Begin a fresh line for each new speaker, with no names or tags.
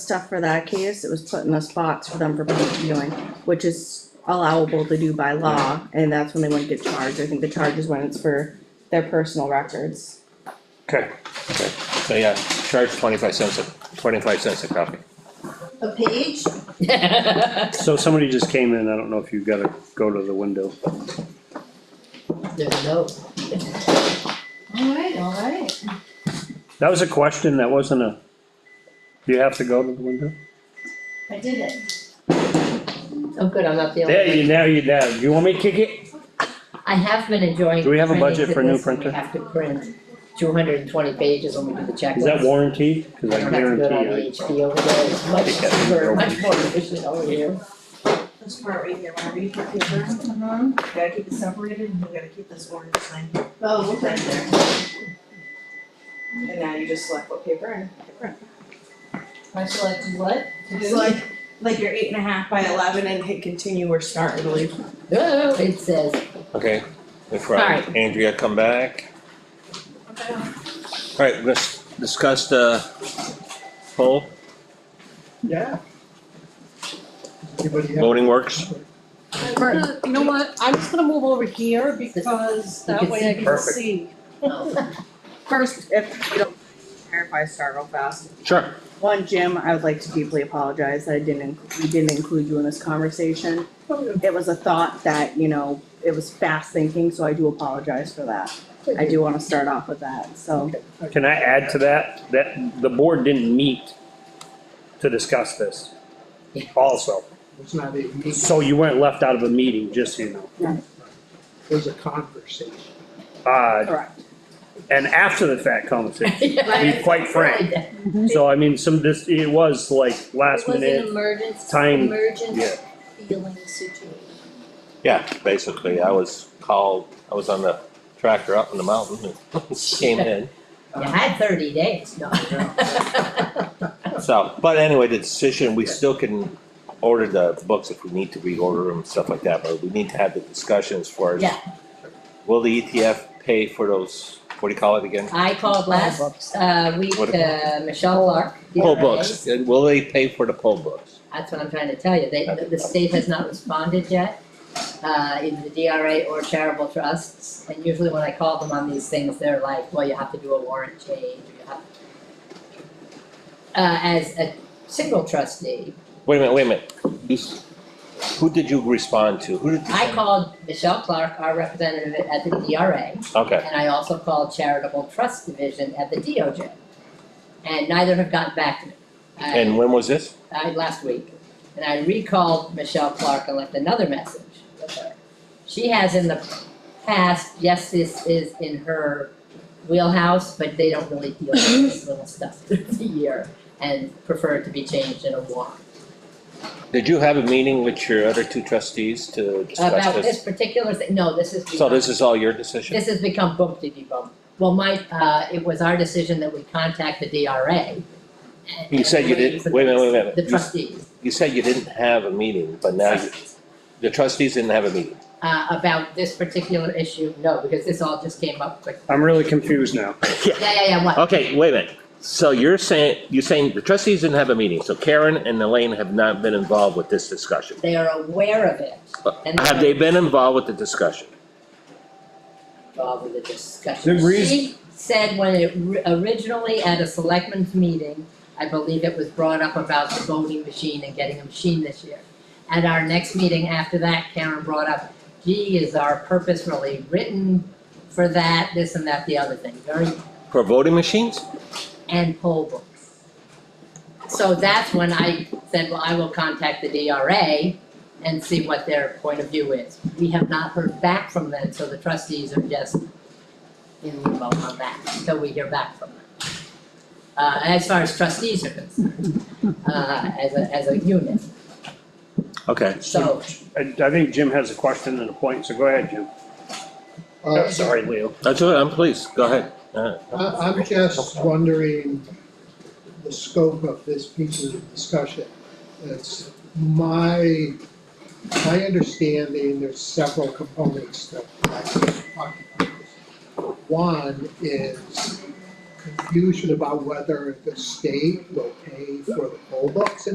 stuff for that case, it was put in this box for them for public viewing, which is allowable to do by law, and that's when they wouldn't get charged, I think the charge is when it's for their personal records.
Okay, okay, so yeah, charge twenty-five cents, a twenty-five cents a copy.
A page?
So somebody just came in, I don't know if you've gotta go to the window.
There's a note.
Alright, alright.
That was a question, that wasn't a, you have to go to the window?
I did it.
Oh, good, I'm not the only
There,
one.
you, now you, now, you want me to kick it?
I have been enjoying.
Do we have a budget
printing
for a new
this when
printer?
We have to print two hundred and twenty pages when we do the checklist.
Is that warranted? Cause
I
I
don't have to do it on
guarantee,
VHB over there, it's much
Take that thing
cheaper,
over.
much more efficient over here.
This part right here, whenever you put paper, you
Uh-huh.
gotta keep it separated and you gotta keep this orange thing
Oh,
right
okay.
there. And now you just select what paper and
I selected what? To do?
Select like your eight and a half by eleven and hit continue or start, I believe.
Oh, it says,
I- okay, if uh,
Alright.
Andrea come back. Alright, let's discuss the poll,
Yeah. Anybody have?
voting works.
I'm gonna- You know what, I'm just gonna move over here because that
can see
way I can
perfect.
see.
First, if you don't care if I start real fast,
Sure.
One, Jim, I would like to deeply apologize that I didn't, inc- we didn't include you in this conversation. It was a thought that, you know, it was fast thinking, so I do apologize for that. I do wanna start off with that, so.
Can I add to that, that the board didn't meet to discuss this also?
It's not a meeting,
So you weren't left out of a meeting, just so you know.
it was a conversation.
Uh,
Correct.
and after the fact conversation,
yeah,
to be quite frank. So I mean, some, this, it was like last minute,
emergency,
time- yeah.
emergent feeling situation.
Yeah, basically, I was called, I was on the tractor up in the mountain and came in.
You had thirty days, no.
So, but anyway, the decision, we still can order the books if we need to reorder them and stuff like that, but we need to have the discussions for
Yeah.
Will the ETF pay for those, what do you call it again?
I called last, uh, week,
What
uh, Michelle Lark. the E
Poll
RA.
books, And will they pay for the poll books?
That's what I'm trying to tell you, they, the state has not responded yet, uh, either the DRA or charitable trusts. And usually when I call them on these things, they're like, well, you have to do a warrant change, or you have. Uh, as a single trustee,
Wait a minute, wait a minute, You s- who did you respond to? Who did you?
I called Michelle Clark, our representative at the DRA,
Okay,
and I also called charitable trust division at the DOJ. And neither have gotten back to me. I-
and when was this?
I, last week, and I recalled Michelle Clark and left another message with her. She has in the past, yes, this is in her wheelhouse, but they don't really deal with this little stuff through the year and prefer it to be changed in a warrant.
Did you have a meeting with your other two trustees to discuss
About
this?
this particular thing, no, this is.
So this is all your decision?
This has become bump diddy bump. Well, my, uh, it was our decision that we contact the DRA. and-
You said you didn't- wait a minute, wait a minute.
The
You-
trustees,
You said you didn't have a meeting, but now you, the trustees didn't have a meeting.
uh, about this particular issue, no, because this all just came up quick.
I'm really confused now.
Yeah, yeah, yeah, what?
Okay, wait a minute. So you're saying, you're saying the trustees didn't have a meeting, so Karen and Elaine have not been involved with this discussion.
They are aware of it and
uh, Have they been involved with the discussion?
involved with the discussion.
The reason-
She said when it ri- originally at a selectmen's meeting, I believe it was brought up about the voting machine and getting a machine this year. At our next meeting after that, Karen brought up, gee, is our purpose really written for that, this and that, the other thing, very,
For voting machines?
and poll books. So that's when I said, well, I will contact the DRA and see what their point of view is. We have not heard back from them, so the trustees are just in limbo on that until we hear back from them. Uh, as far as trustees are concerned, uh, as a, as a unit,
Okay.
so.
I, I think Jim has a question and a point, so go ahead, Jim.
Uh,
Sorry, Leo.
That's all right, I'm pleased, go ahead.
I, I'm just wondering the scope of this piece of discussion. It's my, my understanding, there's several components that I talked about. One is confusion about whether the state will pay for the whole books